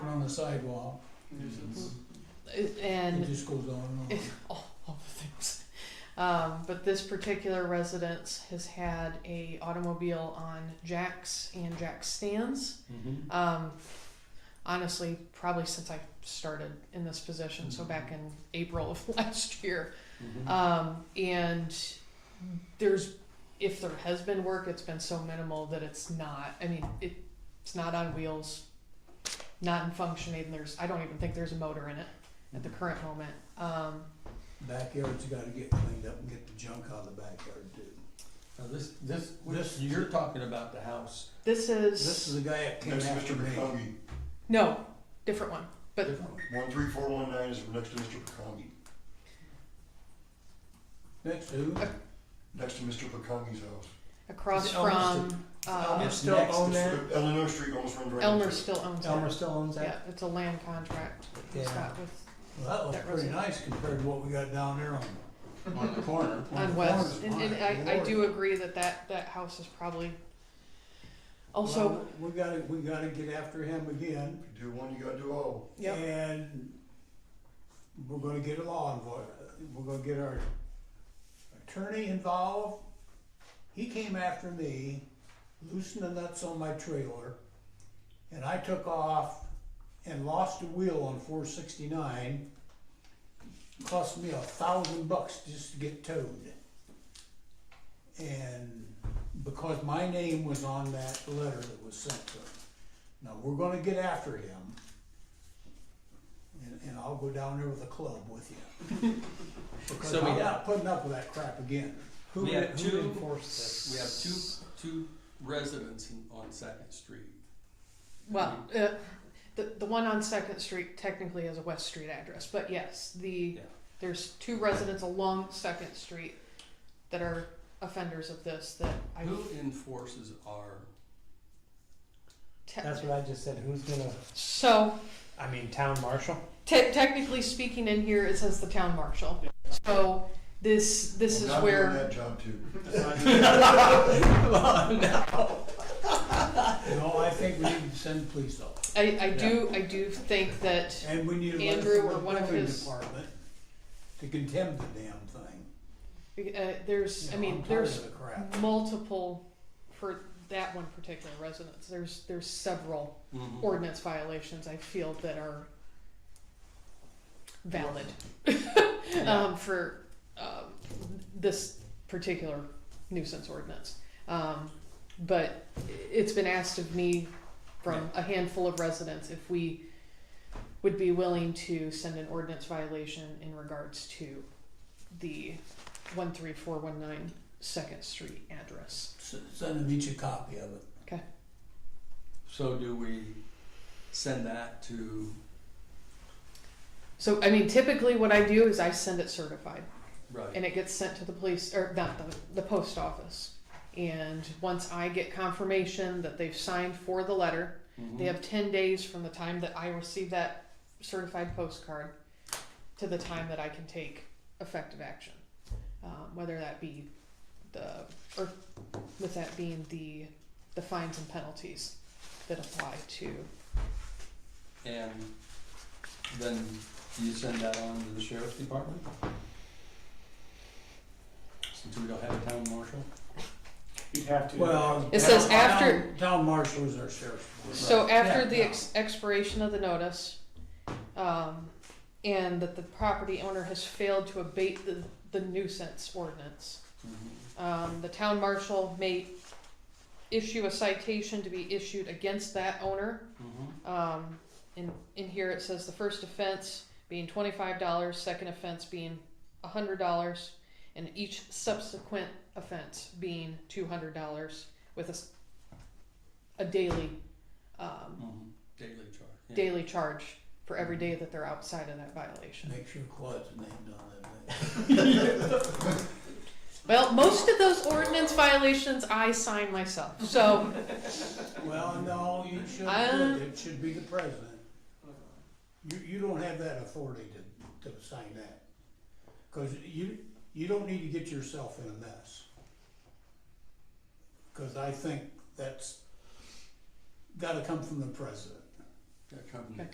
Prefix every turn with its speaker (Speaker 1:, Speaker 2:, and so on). Speaker 1: sidewalk, nuisance, it
Speaker 2: and
Speaker 1: just goes on and on.
Speaker 2: all, all the things. Um, but this particular residence has had a automobile on jacks and jack stands.
Speaker 3: Mm-hmm.
Speaker 2: Um, honestly, probably since I started in this position, so back in April of last year.
Speaker 3: Uh,
Speaker 2: Um, and there's, if there has been work, it's been so minimal that it's not, I mean, it, it's not on wheels, not in functioning, there's, I don't even think there's a motor in it at the current moment. Um,
Speaker 1: Backyards gotta get cleaned up and get the junk out of the backyard too.
Speaker 3: Now this, this,
Speaker 1: This-
Speaker 3: this, you're talking about the house.
Speaker 2: this
Speaker 1: This
Speaker 2: is,
Speaker 1: is the guy that came
Speaker 4: Next to
Speaker 1: after
Speaker 4: Mr.
Speaker 1: me.
Speaker 4: Pekongi,
Speaker 2: no, different one, but
Speaker 4: one three four one nine is next to Mr. Pekongi,
Speaker 1: Next to,
Speaker 4: next to Mr. Pekongi's house.
Speaker 2: across
Speaker 3: Is it Elmer
Speaker 2: from, uh,
Speaker 1: Elmer still
Speaker 3: next
Speaker 1: own
Speaker 3: to-
Speaker 1: that?
Speaker 4: The Eleanor Street almost runs right into
Speaker 2: Elmer
Speaker 4: it.
Speaker 2: still owns
Speaker 3: Elmer
Speaker 2: it.
Speaker 3: still owns
Speaker 2: Yeah,
Speaker 3: that?
Speaker 2: it's a land contract,
Speaker 1: Yeah.
Speaker 2: it's got with,
Speaker 1: Well, that
Speaker 2: That
Speaker 1: looks pretty
Speaker 2: was-
Speaker 1: nice compared to what we got down there on.
Speaker 3: On the corner.
Speaker 1: on
Speaker 2: on
Speaker 1: the
Speaker 2: West, and,
Speaker 1: corners,
Speaker 2: and
Speaker 1: my
Speaker 2: I, I do
Speaker 1: lord.
Speaker 2: agree that that, that house is probably also.
Speaker 1: Well, We gotta, we gotta get after him again.
Speaker 4: If you do one, you gotta do all.
Speaker 2: Yep.
Speaker 1: And we're gonna get a law enforcement, we're gonna get our attorney involved. He came after me, loosened the nuts on my trailer, and I took off and lost a wheel on four sixty-nine. Cost me a thousand bucks just to get towed. And because my name was on that letter that was sent to him. Now, we're gonna get after him. And, and I'll go down there with a club with you. Because
Speaker 3: So we
Speaker 1: I'm
Speaker 3: got-
Speaker 1: not putting up with that crap again. Who,
Speaker 5: We
Speaker 1: en-
Speaker 5: have
Speaker 1: who
Speaker 5: two-
Speaker 1: enforces
Speaker 5: We have
Speaker 1: this?
Speaker 5: two, two residents in- on Second Street.
Speaker 2: Well, uh, the, the one on Second Street technically has a West Street address, but yes, the,
Speaker 5: Yeah.
Speaker 2: there's two residents along Second Street that are offenders of this that I
Speaker 5: Who enforces our,
Speaker 2: te-
Speaker 6: That's what I just said. Who's gonna?
Speaker 2: so
Speaker 6: I mean, town marshal.
Speaker 2: te- technically speaking in here it says the town marshal. So this this
Speaker 4: I'm
Speaker 2: is
Speaker 4: not doing
Speaker 2: where
Speaker 4: that job too.
Speaker 1: No, I think we need to send police officers.
Speaker 2: I, I do I do think that
Speaker 1: And we need a letter
Speaker 2: Andrew
Speaker 1: from
Speaker 2: or
Speaker 1: the
Speaker 2: one of
Speaker 1: building
Speaker 2: his-
Speaker 1: department to condemn the damn thing.
Speaker 2: uh, there's I
Speaker 1: You know, I'm
Speaker 2: mean
Speaker 1: tired
Speaker 2: there's
Speaker 1: of the crap.
Speaker 2: multiple for that one particular residence. There's there's several ordinance violations I feel that are valid
Speaker 5: Mm-hmm.
Speaker 2: um, for um, this particular nuisance ordinance. Um, but it's been asked of me from a handful of residents if we would be willing to send an ordinance violation in regards to the one three four one nine Second Street address.
Speaker 1: S- Send them each a copy of it.
Speaker 5: so do we send that to,
Speaker 2: So I mean, typically what I do is I send it certified.
Speaker 5: right,
Speaker 2: and it gets sent to the police or not the, the post office and once i get confirmation that they've signed for the letter they
Speaker 5: mhm,
Speaker 2: have 10 days from the time that i receive that certified postcard to the time that i can take effective action um, whether that be the or with that being the the fines and penalties that apply to
Speaker 5: and then you send that on to the sheriff's department? Since we don't have a town marshal?
Speaker 3: You'd have
Speaker 1: Well.
Speaker 2: It says
Speaker 1: town-
Speaker 2: after-
Speaker 1: town- Town marshal is our sheriff's. department.
Speaker 2: So after
Speaker 1: Uh, Yeah,
Speaker 2: the
Speaker 1: no.
Speaker 2: ex- expiration of the notice, um, and that the property owner has failed to abate the, the nuisance ordinance,
Speaker 5: Mhm.
Speaker 2: um, the town marshal may issue a citation to be issued against that owner.
Speaker 5: Mhm.
Speaker 2: Um, in, in here it says the first offense being twenty-five dollars, second offense being a hundred dollars, and each subsequent offense being two hundred dollars with a, s- a daily, um,
Speaker 5: Mhm. Daily charge. yeah.
Speaker 2: daily charge for every day that they're outside of that violation.
Speaker 1: Make sure Claude's named on that. thing.
Speaker 2: Well, most of those ordinance violations I sign myself, so
Speaker 1: Well, no, you shouldn't,
Speaker 2: I-
Speaker 1: do it It should be the president. You, you don't have that authority to, to sign that. Cause you, you don't need to get yourself in a mess. Cause I think that's gotta come from the president.
Speaker 5: That company.
Speaker 2: Okay.